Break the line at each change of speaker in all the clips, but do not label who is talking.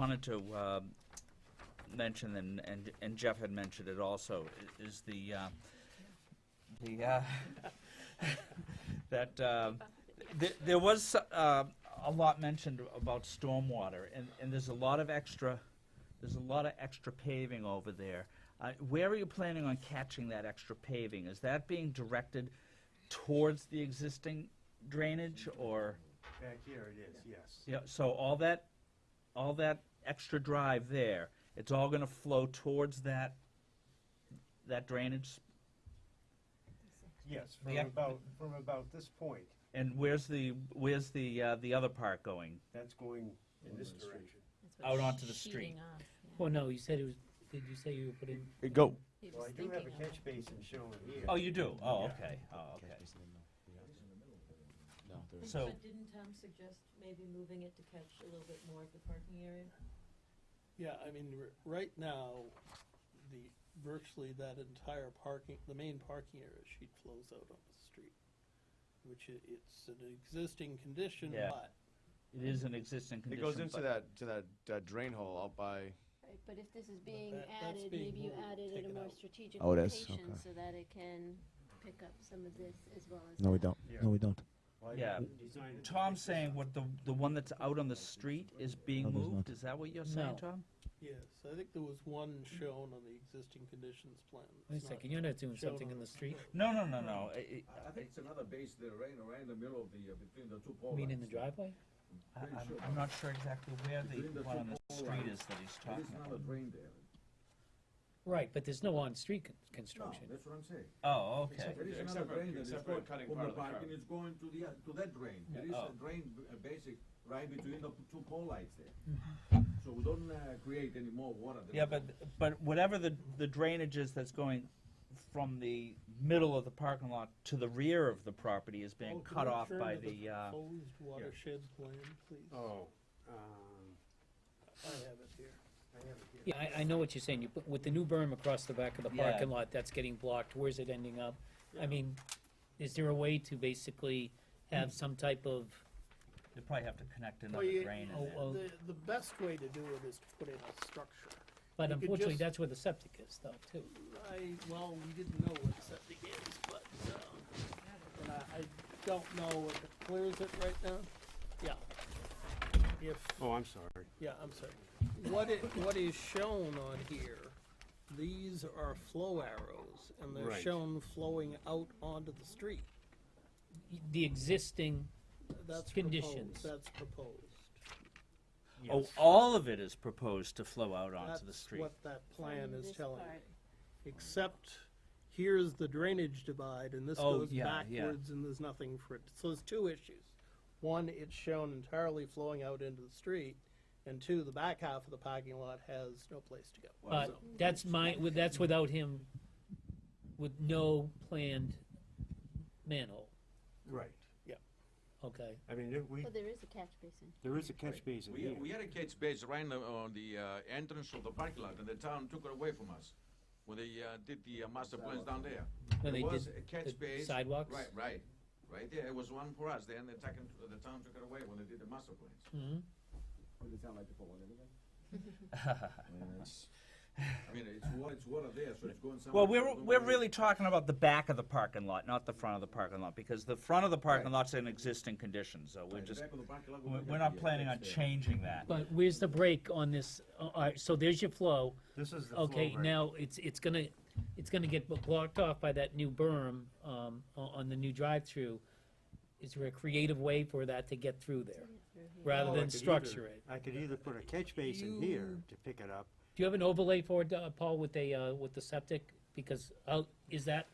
wanted to uh, mention, and- and and Jeff had mentioned it also, i- is the, uh, the, uh, that, uh, th- there was uh, a lot mentioned about stormwater, and and there's a lot of extra, there's a lot of extra paving over there. Uh, Where are you planning on catching that extra paving? Is that being directed towards the existing drainage, or?
Back here it is, yes.
Yeah, so all that, all that extra drive there, it's all gonna flow towards that, that drainage?
Yes,
The
from
ac-
about, from about this point,
And where's the, where's the, uh, the other part going?
that's going in this direction.
Out onto the street.
Well, no, you said it was, did you say you were putting,
Go.
Well, I do have a catch basin shown here.
Oh, you do? Oh, okay, oh, okay. So-
But didn't Tom suggest maybe moving it to catch a little bit more of the parking area?
Yeah, I mean, r- right now, the, virtually that entire parking, the main parking area sheet flows out on the street, which i- it's an existing condition,
Yeah.
but
It is an existing
It
condition.
goes into
but-
that, to that, that drain hole out by,
Right, but if this is being
that- that's
added,
being
maybe you
moved,
add it at
taken
a more
out.
strategic
Oh, it is?
location
Okay.
so that it can pick up some of this as well as.
No, we
that.
don't.
Yeah.
No, we don't.
Well, I
Yeah.
designed it to
Tom's
pick this
saying
up.
what the, the one that's out on the street is being
No, there's not.
moved, is that what you're saying,
No.
Tom?
yes, I think there was one shown on the existing conditions plan.
wait
It's
a
not-
second, you're not doing
showed
something
on
in
the
the street?
No, no, no, no, I,
I I think it's another base there, right around the middle of the, uh, between the two
You
poles.
mean in the driveway?
I, I'm, I'm not sure exactly where the one on the street is that he's
There
talking
is another
about.
drain there.
Right, but there's no on-street con-
No,
construction.
that's what I'm saying.
Oh, okay,
There is
Yeah,
another
except for-
drain that is
except for
going
cutting
from
part
the
of the
parking,
curb.
it's going to the, oth- to that drain. There is
Oh.
a drain, b- uh, basic, right between the p- two pole lights there. So we don't uh, create any more water. than
Mm-hmm. Yeah,
we
but,
have.
but whatever the, the drainage is that's going from the middle of the parking lot to the rear of the property is
Oh,
being
can
cut
we
off
turn
by
to
the, uh,
Proposed watershed plan, please.
Oh, um,
I have it here.
I have it here.
Yeah, I, I know what you're saying, you put, with the new berm across the back of the
Yeah.
parking lot, that's getting blocked, where's it ending up? I mean, is there a way to basically
Hmm.
have some type of,
you probably have to connect
Well,
another
you-
drain in
oh,
there.
oh,
The, the best way to do it is to put in a structure.
but
You could
unfortunately,
just-
that's where the septic is though, too.
I, well, we didn't know what septic is, but, um, and I, I don't know if it clears it right now. Yeah. If,
Oh, I'm sorry.
yeah, I'm sorry. What it, what is shown on here, these are flow arrows, and they're
Right.
shown flowing out onto the street.
The existing,
That's
Conditions.
proposed, that's proposed.
Oh, all of it is proposed to flow out onto the
That's
street.
What that plan
Only
is
this
telling me.
part.
except here's the drainage divide and this
Oh,
goes
yeah, yeah.
backwards and there's nothing for it. So there's two issues. One, it's shown entirely flowing out into the street, and two, the back half of the parking lot has no place to go.
but
So,
that's my, with- that's without him, with no planned manhole,
Right.
okay?
I mean, there- we,
Oh,
Well, there is a catch basin.
there is a catch basin
We,
here.
we had a catch base right on the- on the uh, entrance of the parking lot, and the town took it away from us when they uh, did the uh, master plans down there.
When they
There was
did
a catch
the
base.
sidewalks?
Right, right, right there. It was one for us. Then the town, the town took it away when they did the master plans.
Mm-hmm.
I mean, it's water, it's water there, so it's going somewhere.
Well, we're, we're really talking about the back of the parking lot, not the front of the parking lot, because the front of the parking lot's in existing condition, so we're just, we're we're not planning on changing that.
But where's the break on this, uh, all right, so there's your flow,
This is the flow
okay,
rate.
now, it's, it's gonna, it's gonna get blo- blocked off by that new berm, um, o- on the new drive-through. Is there a creative way for that to get through there, rather
Oh, I
than
could either-
structure it?
I could either put a catch basin here to pick it up,
Do you have an overlay for it, uh, Paul, with a, uh, with the septic, because, uh, is that,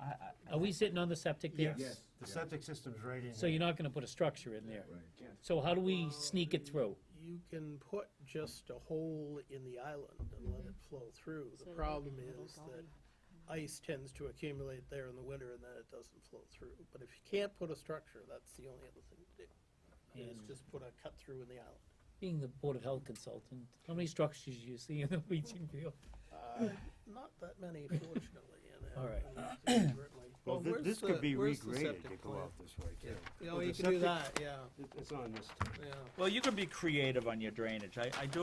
I-
are we sitting on the septic there?
Yes.
The septic system's right in here.
So you're not gonna put a structure in there,
Right. Yeah.
so how do we sneak it through?
You can put just a hole in the island and let it flow through.
So
The
that it
problem
can have a
is that
gully.
ice tends to accumulate there in the winter and then it doesn't flow through. But if you can't put a structure, that's the only other thing to do, is
And-
just put a cut through in the island.
Being the Board of Health consultant, how many structures do you see in the leaching field?
Uh, Not that many, fortunately, and. uh,
All right.
and it's- it's certainly-
Well,
Well,
thi-
where's
this
the-
could be
where's the
regraded
septic
to go
plan?
out this way too.
Yeah,
Well,
you
the
can do
septic-
that, yeah,
it- It's on this.
yeah.
Well, you can be creative on your drainage. I, I do